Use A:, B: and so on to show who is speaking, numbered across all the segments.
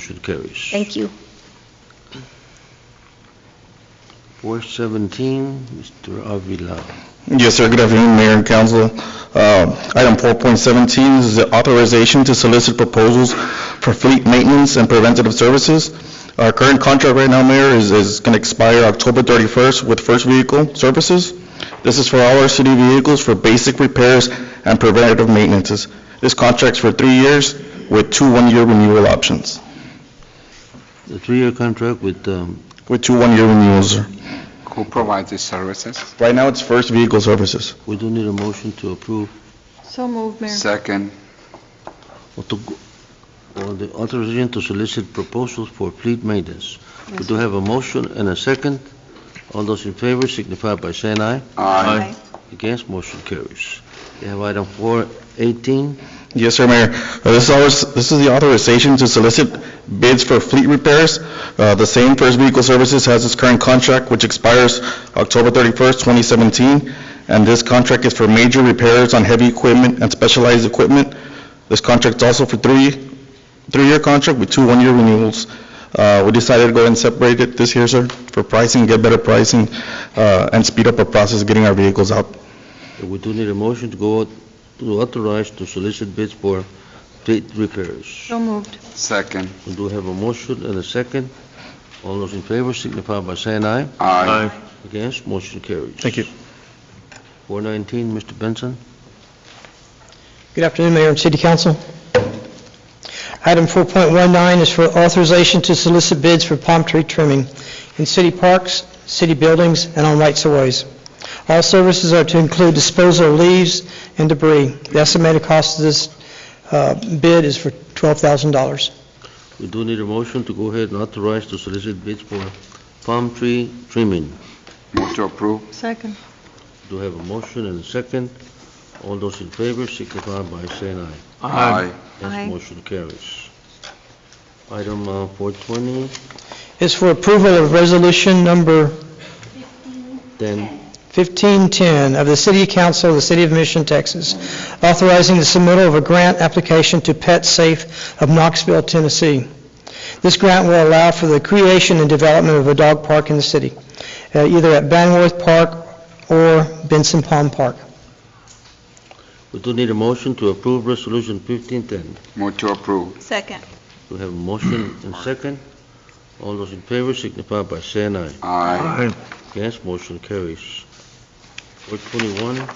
A: Motion carries.
B: Thank you.
A: 417, Mr. Avila.
C: Yes, sir. Good afternoon, Mayor and Council. Uh, Item 4.17 is the authorization to solicit proposals for fleet maintenance and preventative services. Our current contract right now, Mayor, is- is going to expire October 31st with First Vehicle Services. This is for all our city vehicles for basic repairs and preventative maintenances. This contract's for three years with two one-year renewal options,
A: A three-year contract with, um,
C: with two one-year renewals. sir.
D: Who provides these services?
C: Right now, it's First Vehicle Services.
A: we do need a motion to approve
E: So moved, Mayor.
D: Second,
A: or to go- or the authorization to solicit proposals for fleet maintenance. We do have a motion and a second. All those in favor signify by saying aye.
D: aye.
A: Against, motion carries. We have item 418,
C: Yes, sir, Mayor. Uh, This is always- this is the authorization to solicit bids for fleet repairs. Uh, The same First Vehicle Services has its current contract, which expires October 31st, 2017, and this contract is for major repairs on heavy equipment and specialized equipment. This contract's also for three, three-year contract with two one-year renewals. Uh, We decided to go ahead and separate it this year, sir, for pricing, get better pricing, uh, and speed up our process of getting our vehicles out.
A: we do need a motion to go, out- to authorize to solicit bids for fleet repairs.
E: So moved.
D: Second,
A: We do have a motion and a second. All those in favor signify by saying aye.
D: aye.
A: Against, motion carries.
C: Thank you.
A: 419, Mr. Benson.
F: Good afternoon, Mayor and City Council. Item 4.19 is for authorization to solicit bids for palm tree trimming in city parks, city buildings, and on rights-of-ways. All services are to include disposal of leaves and debris. The estimated cost of this uh, bid is for $12,000.
A: We do need a motion to go ahead and authorize to solicit bids for palm tree trimming.
D: Move to approve,
E: Second.
A: Do have a motion and a second. All those in favor signify by saying aye.
D: aye.
A: Against,
E: Aye.
A: motion carries. Item uh, 420,
F: It's for approval of resolution number
A: then
F: 1510 of the City Council of the City of Mission, Texas, authorizing the submittal of a grant application to Pet Safe of Knoxville, Tennessee. This grant will allow for the creation and development of a dog park in the city, uh, either at Banworth Park or Benson Palm Park.
A: we do need a motion to approve Resolution 1510.
D: Move to approve,
E: Second.
A: Do have a motion and second. All those in favor signify by saying aye.
D: aye.
A: Against, motion carries. 421,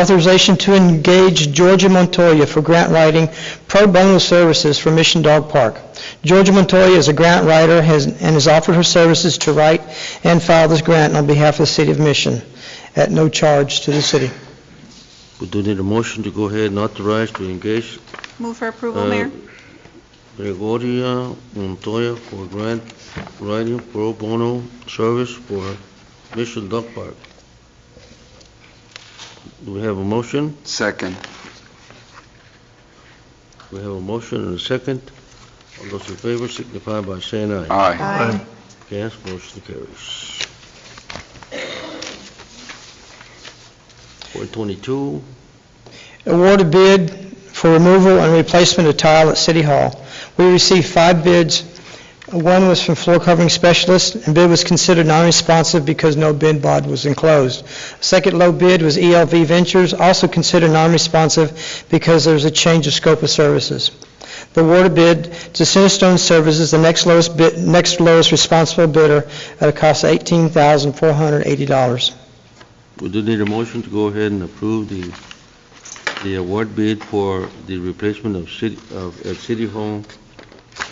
F: Authorization to engage Georgia Montoya for grant writing pro bono services for Mission Dog Park. Georgia Montoya is a grant writer has- and has offered her services to write and file this grant on behalf of the City of Mission at no charge to the city.
A: we do need a motion to go ahead and authorize to engage
E: Move for approval,
A: Uh,
E: Mayor.
A: Gregoria Montoya for grant writing pro bono service for Mission Dog Park. Do we have a motion?
D: Second,
A: We have a motion and a second. All those in favor signify by saying aye.
D: aye.
A: Against, motion carries. 422,
F: Award a bid for removal and replacement of tile at City Hall. We received five bids. One was from floor covering specialist, and bid was considered non-responsive because no bid bod was enclosed. Second low bid was ELV Ventures, also considered non-responsive because there was a change of scope of services. The award of bid to Centerstone Services, the next lowest bid, next lowest responsible bidder, at a cost of $18,480.
A: we do need a motion to go ahead and approve the, the award bid for the replacement of city, of, at City Hall,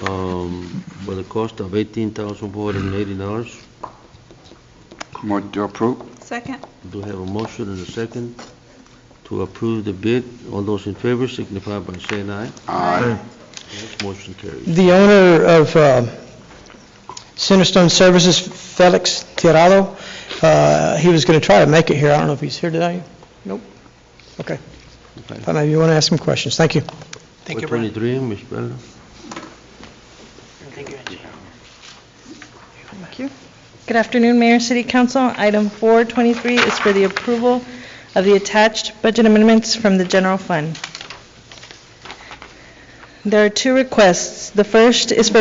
A: um, for the cost of eighteen thousand four hundred and eighty dollars.
D: Move to approve,
E: Second.
A: Do have a motion and a second to approve the bid. All those in favor signify by saying aye.
D: aye.
A: Against, motion carries.
F: The owner of uh, Centerstone Services, Felix Tirado, uh, he was going to try to make it here. I don't know if he's here today. Nope. Okay.
A: Okay.
F: Thought Maybe you want to ask some questions. Thank you. Thank
A: Four twenty-three, Ms. Bella.
E: Thank you.
G: Good afternoon, Mayor, City Council. Item 423 is for the approval of the attached budget amendments from the general fund. There are two requests. The first is for